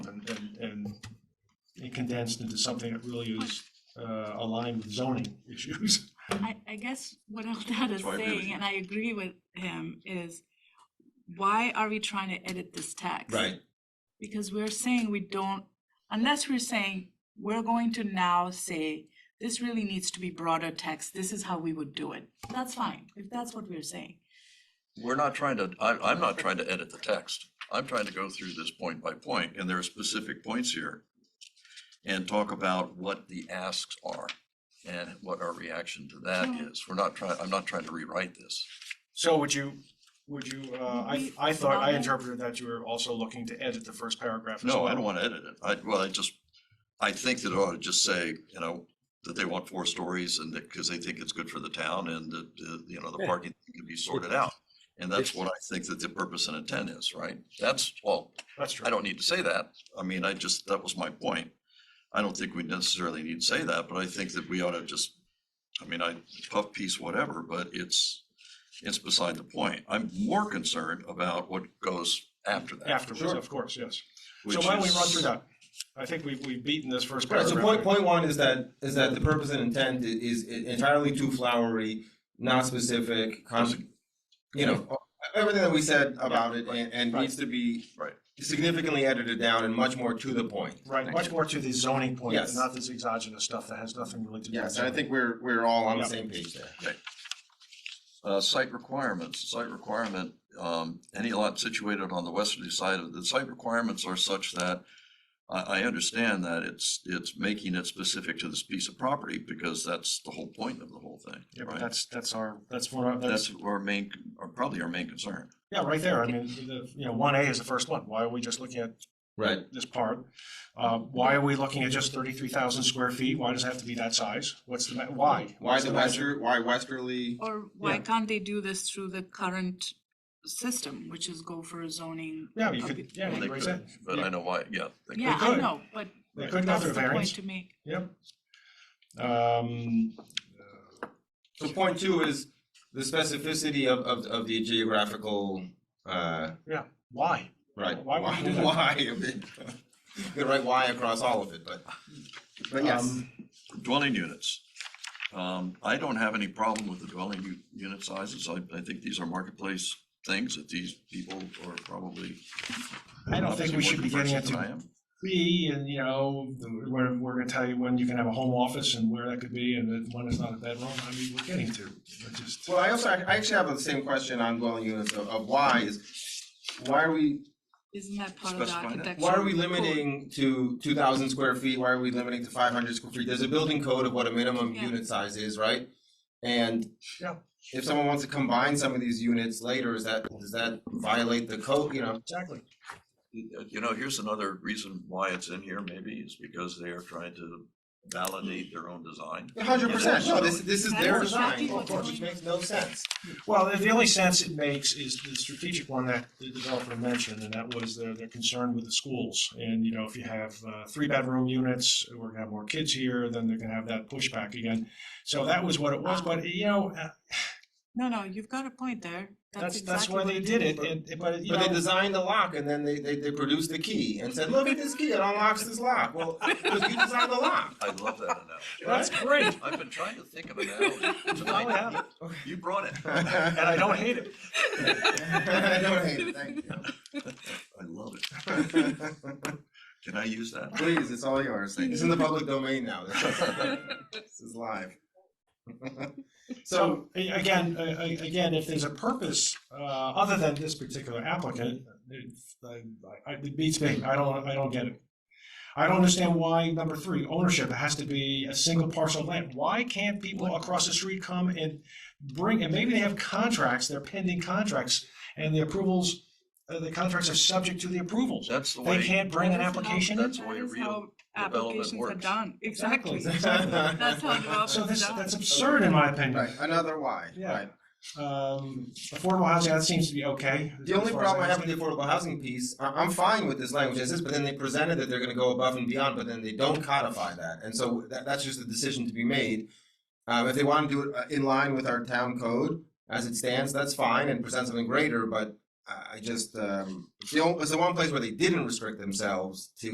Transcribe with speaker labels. Speaker 1: condensed into something that really is uh, aligned with zoning issues.
Speaker 2: I, I guess what Eldad is
Speaker 3: why I agree with
Speaker 2: saying,
Speaker 3: you.
Speaker 2: and I agree with him, is why are we trying to edit this text? Because we're saying we don't, unless we're saying, we're going to now say, this really needs to be broader text, this is how we would do it. That's fine, if that's what we're saying.
Speaker 3: We're not trying to, I, I'm not trying to edit the text. I'm trying to go through this point by point, and there are specific points here. And talk about what the asks are and what our reaction to that
Speaker 2: Sure.
Speaker 3: is. We're not trying, I'm not trying to rewrite this.
Speaker 1: So would you, would you, uh, I,
Speaker 2: We-
Speaker 1: I thought, I
Speaker 2: Robin?
Speaker 1: interpreted that you were also looking to edit the first paragraph as
Speaker 3: No, I
Speaker 1: well.
Speaker 3: don't want to edit it. I, well, I just, I think that it ought to just say, you know, that they want four stories and that, because they think it's good for the town and that, uh, you know, the
Speaker 4: Yeah.
Speaker 3: parking can be sorted out. And that's what I think that the purpose and intent is, right? That's all.
Speaker 1: That's true.
Speaker 3: I don't need to say that. I mean, I just, that was my point. I don't think we necessarily need to say that, but I think that we ought to just, I mean, I puff piece whatever, but it's, it's beside the point. I'm more concerned about what goes after that.
Speaker 1: Afterwards,
Speaker 5: Sure.
Speaker 1: of course, yes.
Speaker 3: which
Speaker 1: So why don't we
Speaker 3: is-
Speaker 1: run through that? I think we've, we've beaten this first
Speaker 5: Right, so
Speaker 1: paragraph.
Speaker 5: point, point one is that, is that the purpose and intent i- is entirely too flowery, not specific, con- you know, everything that we said about it and, and needs to be
Speaker 3: Right.
Speaker 5: significantly edited down and much more to the point.
Speaker 1: Right, much more to the zoning point,
Speaker 5: Yes.
Speaker 1: not this exogenous stuff that has nothing really to do with.
Speaker 5: Yes, and I
Speaker 1: zoning.
Speaker 5: think we're, we're all on the
Speaker 1: Yeah.
Speaker 5: same page there.
Speaker 3: Uh, site requirements, site requirement, um, any lot situated on the westerly side of, the site requirements are such that I, I understand that it's, it's making it specific to this piece of property because that's the whole point of the whole thing,
Speaker 1: Yeah, but
Speaker 3: right?
Speaker 1: that's, that's our, that's one of, that's,
Speaker 3: That's our main, or probably our main concern.
Speaker 1: yeah, right there. I mean, the, you know, one A is the first one. Why are we just looking at
Speaker 5: Right.
Speaker 1: this part? Uh, why are we looking at just thirty-three thousand square feet? Why does it have to be that size? What's the, ma- why?
Speaker 5: Why
Speaker 1: What's
Speaker 5: the
Speaker 1: magic?
Speaker 5: wester, why westerly?
Speaker 2: Or why
Speaker 1: Yeah.
Speaker 2: can't they do this through the current system, which is go for a zoning?
Speaker 1: Yeah, you
Speaker 2: of
Speaker 1: could,
Speaker 2: it,
Speaker 1: yeah,
Speaker 3: They
Speaker 1: you
Speaker 2: right?
Speaker 1: could raise that.
Speaker 3: could, But I know why, yeah. they could.
Speaker 2: Yeah, I
Speaker 1: could.
Speaker 2: know, but
Speaker 1: They could go
Speaker 2: that's
Speaker 1: through
Speaker 2: the point
Speaker 1: variance.
Speaker 2: to make.
Speaker 1: Yep. Um,
Speaker 5: So point two is the specificity of, of, of the geographical, uh,
Speaker 1: why?
Speaker 5: right.
Speaker 1: Why would you do that?
Speaker 5: Why, you could write why across all of it, but, but yes.
Speaker 1: Um,
Speaker 3: Dwelling units. Um, I don't have any problem with the dwelling u- unit sizes. I, I think these are marketplace things that these people are probably.
Speaker 1: I don't think
Speaker 3: obviously
Speaker 1: we
Speaker 3: more
Speaker 1: should be getting
Speaker 3: conversant than I
Speaker 1: into
Speaker 3: am.
Speaker 1: B and, you know, where we're gonna tell you when you can have a home office and where that could be and that one is not a bedroom. I mean, we're getting to, we're just.
Speaker 5: Well, I also, I actually have the same question on dwelling units of, of why is, why are we,
Speaker 2: Isn't that part of the
Speaker 3: Specify that.
Speaker 2: architecture?
Speaker 5: why are we
Speaker 2: code?
Speaker 5: limiting to two thousand square feet? Why are we limiting to five hundred square feet? There's a building code of what a minimum
Speaker 2: Yeah.
Speaker 5: unit size is, right? And
Speaker 1: Yeah.
Speaker 5: if someone wants to combine some of these units later, is that, does that violate the code, you know?
Speaker 1: Exactly.
Speaker 3: You know, here's another reason why it's in here maybe is because they are trying to validate their own design.
Speaker 5: Hundred percent, no, this, this is their
Speaker 2: That's
Speaker 5: design,
Speaker 2: exactly
Speaker 5: of
Speaker 2: what's
Speaker 5: course,
Speaker 2: going
Speaker 5: which
Speaker 2: on.
Speaker 5: makes no sense.
Speaker 1: Well, the- the only sense it makes is the strategic one that the developer mentioned, and that was their, their concern with the schools. And, you know, if you have uh, three bedroom units, we're gonna have more kids here, then they're gonna have that pushback again. So that was what it was, but, you know, uh,
Speaker 2: No, no, you've got a point there.
Speaker 1: that's, that's
Speaker 2: exactly
Speaker 1: why
Speaker 2: what
Speaker 1: they
Speaker 2: it
Speaker 1: did it,
Speaker 2: is.
Speaker 1: and, but, you
Speaker 5: But they
Speaker 1: know,
Speaker 5: designed the lock and then they, they, they produced the key and said, look at this key, it unlocks this lock, well, because you designed the lock.
Speaker 3: I love that analogy.
Speaker 1: that's great.
Speaker 3: I've been trying to think of an analogy
Speaker 1: Now we have
Speaker 3: tonight.
Speaker 1: it,
Speaker 3: You brought it.
Speaker 5: And
Speaker 1: And I don't hate it.
Speaker 5: I don't hate it, thank
Speaker 3: I love it.
Speaker 5: you.
Speaker 3: Can I use that?
Speaker 5: Please, it's all yours, it's in the public domain now, this is live. So,
Speaker 1: So a- again, a- a- again, if there's a purpose uh, other than this particular applicant, it, I- I- it beats me. I don't, I don't get it. I don't understand why number three, ownership has to be a single parcel of land. Why can't people across the street come and bring? And maybe they have contracts, they're pending contracts, and the approvals, uh, the contracts are subject to the approvals.
Speaker 3: That's the
Speaker 1: They
Speaker 3: way,
Speaker 1: can't bring an
Speaker 2: That is how-
Speaker 1: application in.
Speaker 3: That's the way
Speaker 2: that is
Speaker 3: real
Speaker 2: how
Speaker 3: development
Speaker 2: Applications are
Speaker 3: works.
Speaker 2: done, exactly. That's how development
Speaker 1: So
Speaker 2: is
Speaker 1: this,
Speaker 2: done.
Speaker 1: that's absurd in my opinion.
Speaker 5: right, another why,
Speaker 1: Yeah.
Speaker 5: right.
Speaker 1: Um, affordable housing, that seems to be okay.
Speaker 5: The only
Speaker 1: as far as
Speaker 5: problem I have
Speaker 1: understand.
Speaker 5: with the affordable housing piece, I, I'm fine with this language as is, but then they presented that they're gonna go above and beyond, but then they don't codify that, and so that, that's just a decision to be made. Um, if they wanna do it uh, in line with our town code as it stands, that's fine, and present something greater, but I, I just, um, it's the only, it's the one place where they didn't restrict themselves to